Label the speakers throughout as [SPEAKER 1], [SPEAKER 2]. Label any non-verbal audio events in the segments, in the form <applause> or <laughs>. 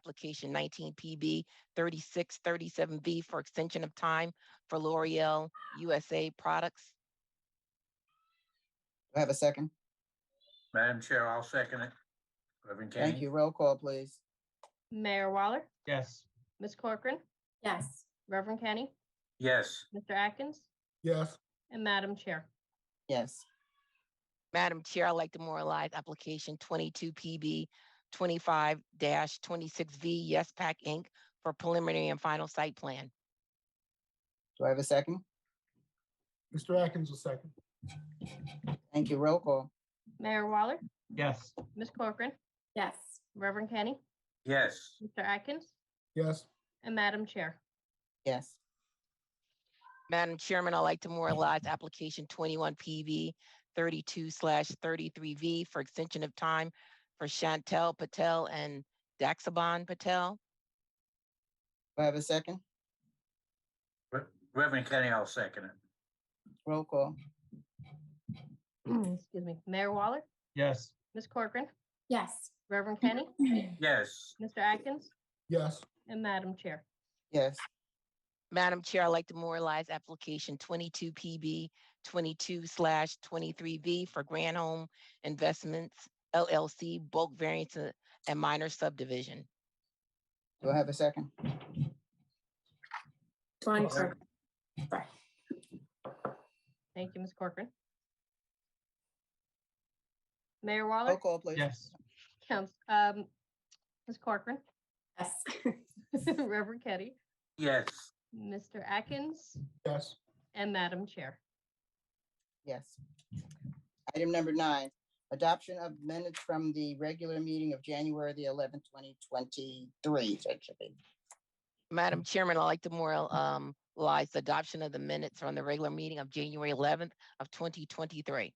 [SPEAKER 1] application nineteen PB thirty-six thirty-seven B for extension of time for L'Oreal USA products.
[SPEAKER 2] Do I have a second?
[SPEAKER 3] Madam Chair, I'll second it. Reverend Kenny?
[SPEAKER 2] Thank you. Roll call, please.
[SPEAKER 4] Mayor Waller,
[SPEAKER 5] yes,
[SPEAKER 4] Ms. Corcoran,
[SPEAKER 6] yes,
[SPEAKER 4] Reverend Kenny,
[SPEAKER 3] Yes,
[SPEAKER 4] Mr. Atkins,
[SPEAKER 7] yes,
[SPEAKER 4] and Madam Chair.
[SPEAKER 2] Yes.
[SPEAKER 1] Madam Chair, I'd like to memorialize application twenty-two PB twenty-five twenty-six V Yes Pack Inc. for preliminary and final site plan.
[SPEAKER 2] Do I have a second?
[SPEAKER 7] Mr. Atkins will second.
[SPEAKER 2] Thank you. Roll call.
[SPEAKER 4] Mayor Waller,
[SPEAKER 5] yes,
[SPEAKER 4] Ms. Corcoran,
[SPEAKER 6] yes,
[SPEAKER 4] Reverend Kenny,
[SPEAKER 3] yes,
[SPEAKER 4] Mr. Atkins,
[SPEAKER 7] Yes,
[SPEAKER 4] and Madam Chair. <clears throat>
[SPEAKER 2] Yes.
[SPEAKER 1] Madam Chairman, I'd like to memorialize application twenty-one PV thirty-two slash thirty-three V for extension of time for Chantel Patel and Daxaban Patel.
[SPEAKER 2] Do I have a second?
[SPEAKER 3] Re- Reverend Kenny, I'll second it.
[SPEAKER 2] Roll call.
[SPEAKER 4] Excuse me, Mayor Waller,
[SPEAKER 5] yes,
[SPEAKER 4] Ms. Corcoran,
[SPEAKER 6] yes. <laughs>
[SPEAKER 4] Reverend Kenny,
[SPEAKER 3] Yes,
[SPEAKER 4] Mr. Atkins,
[SPEAKER 7] yes,
[SPEAKER 4] and Madam Chair.
[SPEAKER 2] Yes.
[SPEAKER 1] Madam Chair, I'd like to memorialize application twenty-two PB twenty-two slash twenty-three V for Grand Home Investments LLC bulk variance uh, and minor subdivision.
[SPEAKER 2] Do I have a second?
[SPEAKER 6] Dawn
[SPEAKER 5] Sorry.
[SPEAKER 6] Kirk. Sorry.
[SPEAKER 4] Thank you, Ms. Corcoran. Mayor
[SPEAKER 2] Roll
[SPEAKER 4] Waller,
[SPEAKER 2] call, please.
[SPEAKER 5] yes,
[SPEAKER 4] Counts, um, Ms. Corcoran, <laughs>
[SPEAKER 6] Yes,
[SPEAKER 4] Reverend Kenny,
[SPEAKER 3] yes,
[SPEAKER 4] Mr. Atkins,
[SPEAKER 7] yes,
[SPEAKER 4] and Madam Chair.
[SPEAKER 2] Yes. Item number nine, adoption of minutes from the regular meeting of January the eleventh, twenty twenty-three. That should be.
[SPEAKER 1] Madam Chairman, I'd like to memorialize the adoption of the minutes from the regular meeting of January eleventh of twenty twenty-three.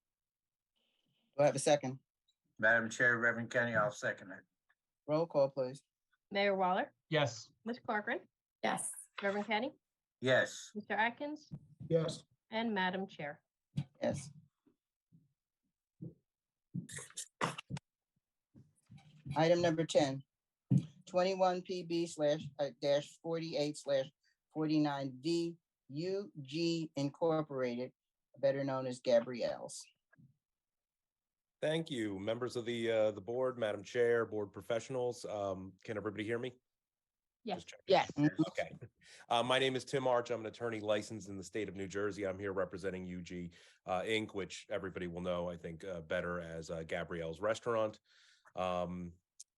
[SPEAKER 2] Do I have a second?
[SPEAKER 3] Madam Chair, Reverend Kenny, I'll second it.
[SPEAKER 2] Roll call, please.
[SPEAKER 4] Mayor Waller,
[SPEAKER 5] yes,
[SPEAKER 4] Ms. Corcoran,
[SPEAKER 6] <laughs> yes,
[SPEAKER 4] Reverend Kenny,
[SPEAKER 3] Yes,
[SPEAKER 4] Mr. Atkins,
[SPEAKER 7] yes,
[SPEAKER 4] and Madam Chair.
[SPEAKER 2] Yes. Item number ten, twenty-one PB slash uh, dash forty-eight slash forty-nine V UG Incorporated, better known as Gabrielle's.
[SPEAKER 8] Thank you, members of the, uh, the board, Madam Chair, board professionals. Um, can everybody hear me?
[SPEAKER 4] Yes.
[SPEAKER 8] Just checking.
[SPEAKER 1] Yes,
[SPEAKER 8] Okay. Uh, my name is Tim Arch. I'm an attorney licensed in the state of New Jersey. I'm here representing UG uh, Inc., which everybody will know, I think, uh, better as uh, Gabrielle's Restaurant. Um,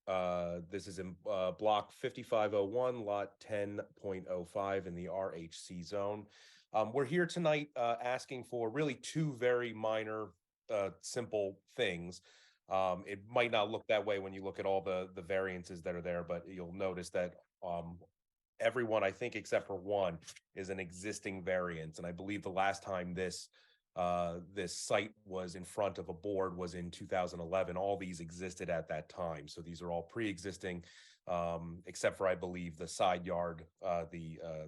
[SPEAKER 8] uh, this is in uh, block 5501, lot 10.05 in the RHC zone. Um, we're here tonight uh, asking for really two very minor, uh, simple things. Um, it might not look that way when you look at all the the variances that are there, but you'll notice that um, everyone, I think, except for one, is an existing variance. And I believe the last time this uh, this site was in front of a board was in 2011. All these existed at that time, so these are all pre-existing, um, except for I believe the side yard, uh, the uh,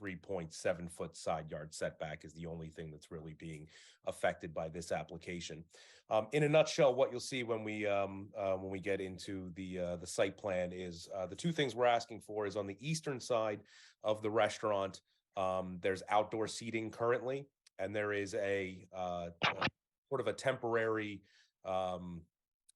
[SPEAKER 8] 33.7 foot side yard setback is the only thing that's really being affected by this application. Um, in a nutshell, what you'll see when we um, uh, when we get into the uh, the site plan is uh, the two things we're asking for is on the eastern side of the restaurant. Um, there's outdoor seating currently, and there is a uh, uh, sort of a temporary um,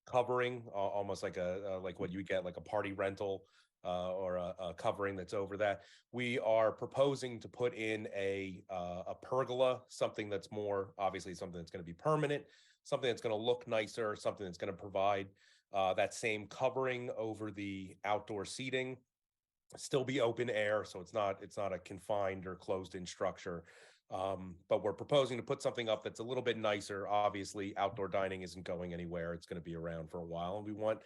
[SPEAKER 8] covering, a- almost like a uh, like what you get like a party rental uh, or a, a covering that's over that. We are proposing to put in a uh, a pergola, something that's more obviously something that's going to be permanent something that's going to look nicer, something that's going to provide uh, that same covering over the outdoor seating, still be open air, so it's not it's not a confined or closed in structure. Um, but we're proposing to put something up that's a little bit nicer. Obviously, outdoor dining isn't going anywhere; it's going to be around for a while, and we want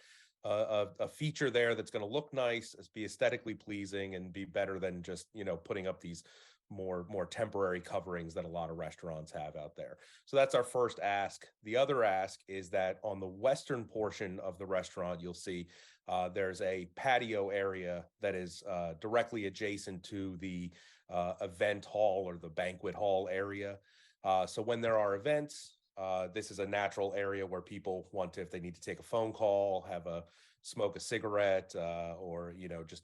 [SPEAKER 8] a, a, a feature there that's going to look nice, as- be aesthetically pleasing, and be better than just you know putting up these more more temporary coverings that a lot of restaurants have out there. So that's our first ask. The other ask is that on the western portion of the restaurant, you'll see uh, there's a patio area that is uh, directly adjacent to the uh, event hall or the banquet hall area. Uh, so when there are events, uh, this is a natural area where people want to, if they need to take a phone call, have a smoke a cigarette uh, or, you know, just